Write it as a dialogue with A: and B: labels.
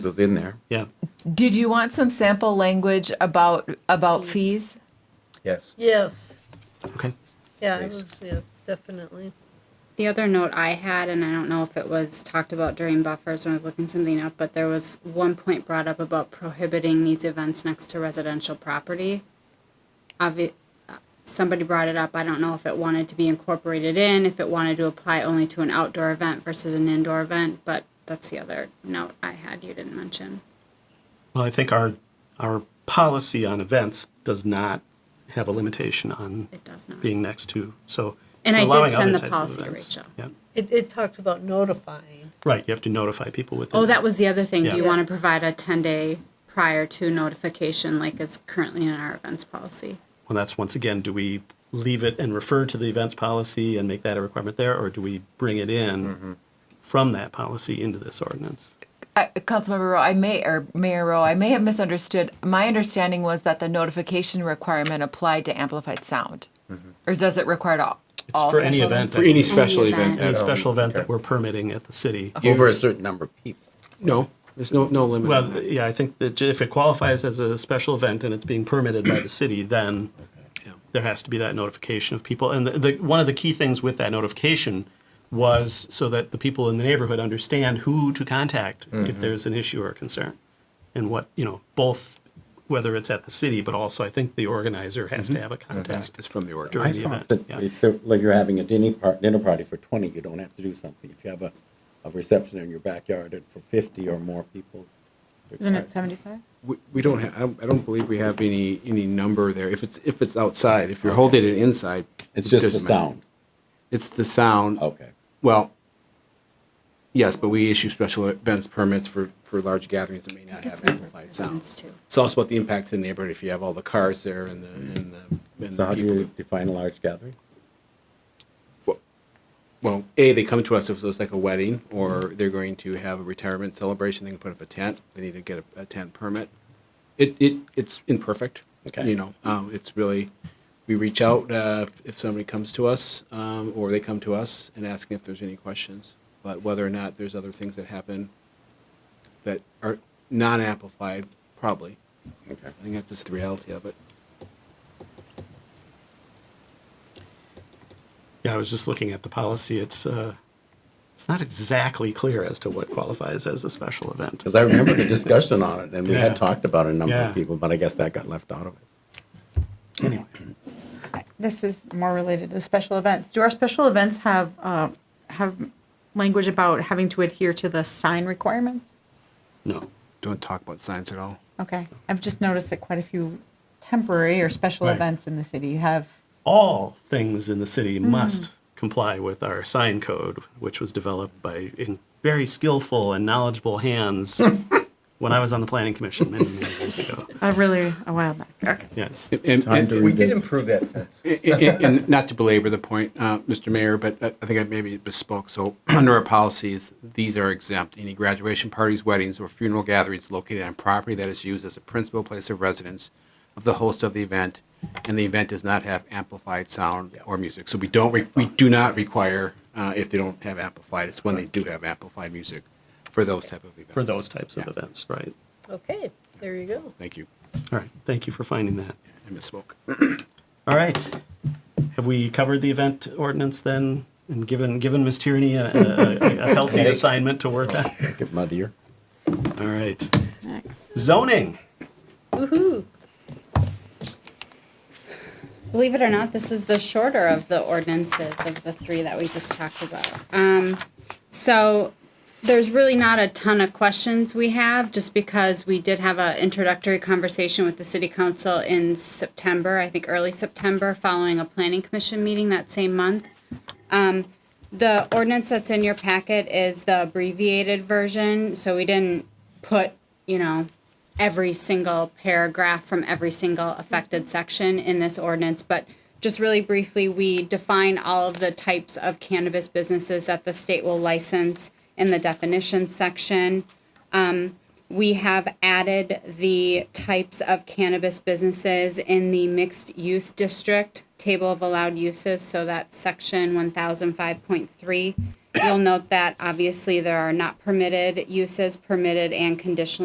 A: was in there.
B: Yeah.
C: Did you want some sample language about, about fees?
A: Yes.
D: Yes,
B: Okay.
D: yeah, it was, yeah, definitely.
E: The other note I had, and I don't know if it was talked about during buffers when I was looking something up, but there was one point brought up about prohibiting these events next to residential property. Obvi- uh, somebody brought it up. I don't know if it wanted to be incorporated in, if it wanted to apply only to an outdoor event versus an indoor event, but that's the other note I had you didn't mention.
B: Well, I think our our policy on events does not have a limitation on
E: It does not.
B: being next to. So
E: And
B: for
E: I did
B: allowing
E: send
B: other
E: the
B: types of
E: policy to
B: events.
E: Rachel.
B: Yeah.
D: It, it talks about notifying.
B: Right. You have to notify people within.
E: Oh, that was the other thing. Do you
B: Yeah.
E: want to provide a 10 day prior to notification like is currently in our events policy?
B: Well, that's once again, do we leave it and refer to the events policy and make that a requirement there, or do we bring it in
F: Mm-hmm.
B: from that policy into this ordinance?
C: Uh, Councilmember Rowe, I may, or Mayor Rowe, I may have misunderstood. My understanding was that the notification requirement applied to amplified sound. Or does it require to all?
B: Mm-hmm. It's
C: all
B: for any
C: special
B: event,
C: events?
B: that,
F: For any special
E: Any
F: event. Um,
E: event.
B: any
A: Oh,
B: special event
A: okay.
B: that we're permitting at the city.
A: Over a certain number of people.
F: No, there's no, no limit. on
B: Well,
F: that.
B: yeah, I think that if it qualifies as a special event and it's being permitted by the city, then there has to be that notification of people. And the, the, one of the key things with that notification was so that the people in the neighborhood understand who to contact if there's an issue or a concern. And what, you know, both, whether it's at the city, but also I think the organizer has to have a contact.
F: It's from the ordinance.
B: During the
A: But
B: event, yeah.
A: if they're- like you're having a dinner par, dinner party for twenty, you don't have to do something. If you have a, a reception in your backyard and for fifty or more people.
G: Isn't it 75?
F: We- We don't have, I don't- I don't believe we have any, any number there. If it's, if it's outside, if you're holding it inside.
A: It's
F: it
A: just the
F: doesn't matter.
A: sound.
F: It's the sound.
A: Okay.
F: Well, yes, but we issue special events permits for, for large gatherings that may not have amplified sound.
E: Sounds too.
F: It's also about the impact to the neighborhood if you have all the cars there and the, and the. and
A: So
F: the
A: how do
F: people
A: you
F: that-
A: define a large gathering?
F: Well, A, they come to us if it's like a wedding or they're going to have a retirement celebration, they can put up a tent, they need to get a, a tent permit. It, it, it's imperfect.
A: Okay.
F: You know, um, it's really, we reach out, uh, if somebody comes to us, um, or they come to us and asking if there's any questions. But whether or not there's other things that happen that are non-amplified, probably.
A: Okay.
F: I think that's just the reality of it.
B: Yeah, I was just looking at the policy. It's, uh, it's not exactly clear as to what qualifies as a special event.
A: Because I remember the discussion on it and we
B: Yeah.
A: had talked about a number
B: Yeah.
A: of people, but I guess that got left out of it.
G: This is more related to special events. Do our special events have, uh, have language about having to adhere to the sign requirements?
B: No.
F: Don't talk about science at all.
G: Okay, I've just noticed that quite a few temporary or special
B: Right.
G: events in the city have,
B: all things in the city must comply with our sign code, which was developed by in very skillful and knowledgeable hands when I was on the planning commission many, many years ago.
G: uh, really a while back. Okay.
B: Yes.
F: And-
A: Time
F: and-
A: to
H: We did
A: revisit.
H: improve that sense.
F: And- And and not to belabor the point, uh, Mr. Mayor, but I I think I maybe bespoke. So under our policies, these are exempt. Any graduation parties, weddings, or funeral gatherings located on property that is used as a principal place of residence of the host of the event, and the event does not have amplified sound or music. So we don't, re- we do not require uh, if they don't have amplified. It's when they do have amplified music for those type of events.
B: For those types of events, right?
D: Okay, there you go.
F: Thank you.
B: All right. Thank you for finding that.
F: I misspoke.
B: All right. Have we covered the event ordinance then and given given Ms. Tierney a, a, a- a healthy assignment to work on?
A: Get mud here.
B: All right. Zoning.
D: Woohoo.
E: Believe it or not, this is the shorter of the ordinances of the three that we just talked about. Um, so there's really not a ton of questions we have, just because we did have an introductory conversation with the city council in September, I think early September, following a planning commission meeting that same month. The ordinance that's in your packet is the abbreviated version, so we didn't put, you know, every single paragraph from every single affected section in this ordinance, but just really briefly, we define all of the types of cannabis businesses that the state will license in the definition section. We have added the types of cannabis businesses in the mixed use district table of allowed uses, so that's section one thousand five point three. You'll note that obviously there are not permitted uses, permitted and conditional